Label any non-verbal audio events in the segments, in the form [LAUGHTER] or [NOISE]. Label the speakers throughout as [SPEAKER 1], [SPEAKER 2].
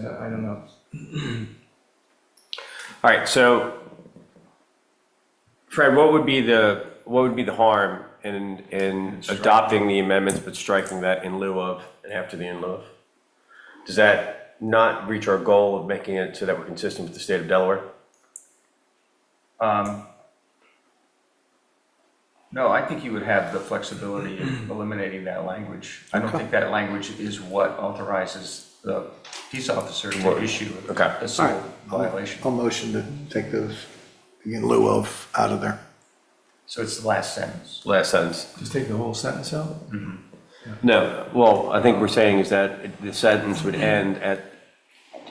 [SPEAKER 1] Yeah, I don't know.
[SPEAKER 2] All right, so Fred, what would be the, what would be the harm in, in adopting the amendments but striking that in lieu of and after the in lieu of? Does that not reach our goal of making it so that we're consistent with the state of Delaware?
[SPEAKER 1] Um, No, I think you would have the flexibility
[SPEAKER 2] [CLEARS THROAT]
[SPEAKER 1] of eliminating that language. I don't think that language is what authorizes the peace officer to issue
[SPEAKER 2] Okay.
[SPEAKER 1] a civil violation.
[SPEAKER 3] I'll motion to take those in lieu of out of there.
[SPEAKER 1] So it's the last sentence.
[SPEAKER 2] Last sentence. Mm-hmm.
[SPEAKER 4] Just take the whole sentence out?
[SPEAKER 2] No, well, I think we're saying is that it- the sentence would end at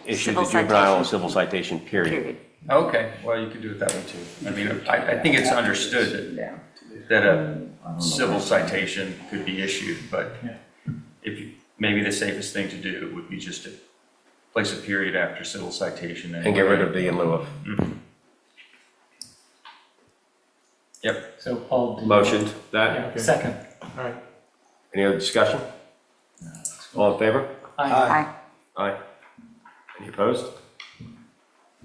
[SPEAKER 2] issue the
[SPEAKER 5] Civil
[SPEAKER 2] juvenile and
[SPEAKER 5] citation.
[SPEAKER 2] civil citation, period.
[SPEAKER 5] period.
[SPEAKER 1] Okay, well, you could do it that way too. I mean, I, I think it's understood that, that a civil citation could be issued, but if you, maybe the safest thing to do would be just to place a period after civil citation.
[SPEAKER 2] And get rid of the in lieu of.
[SPEAKER 1] Yep.
[SPEAKER 6] So Paul, do you-
[SPEAKER 2] Motioned, that,
[SPEAKER 4] Okay.
[SPEAKER 6] Second.
[SPEAKER 4] All right.
[SPEAKER 2] any other discussion? All in favor?
[SPEAKER 6] Aye.
[SPEAKER 5] Aye.
[SPEAKER 2] Aye. Any opposed?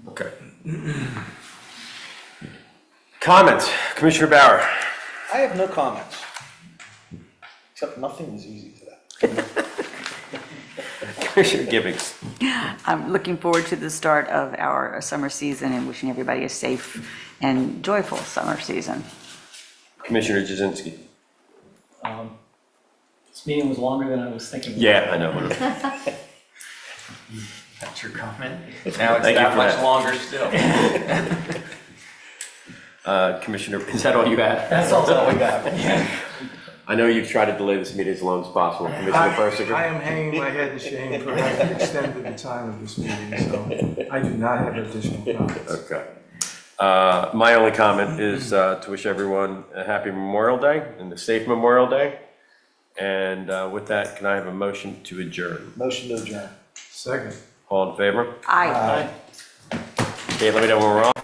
[SPEAKER 2] Okay. Comments, Commissioner Bauer? [LAUGHS]
[SPEAKER 3] I have no comments. Except nothing is easy today.
[SPEAKER 2] Commissioner Gibbings?
[SPEAKER 5] I'm looking forward to the start of our summer season and wishing everybody a safe and joyful summer season.
[SPEAKER 2] Commissioner Jazinski?
[SPEAKER 6] Um, This meeting was longer than I was thinking.
[SPEAKER 2] Yeah, I know.
[SPEAKER 1] That's your comment? Now it's
[SPEAKER 2] Thank you
[SPEAKER 1] that
[SPEAKER 2] for
[SPEAKER 1] much
[SPEAKER 2] that.
[SPEAKER 1] longer still.
[SPEAKER 2] Uh, Commissioner, is that all you had?
[SPEAKER 6] That's all that we got.
[SPEAKER 2] I know you've tried to delay this meeting as long as possible, Commissioner
[SPEAKER 4] I
[SPEAKER 2] Fursinger?
[SPEAKER 4] am hanging my head in shame for having extended the time of this meeting, so I do not have additional comments.
[SPEAKER 2] Okay. Uh, My only comment is uh, to wish everyone a happy Memorial Day and a safe Memorial Day. And uh, with that, can I have a motion to adjourn?
[SPEAKER 3] Motion to adjourn.
[SPEAKER 4] Second.
[SPEAKER 2] All in favor?
[SPEAKER 5] Aye.
[SPEAKER 2] Okay, let me know when we're on.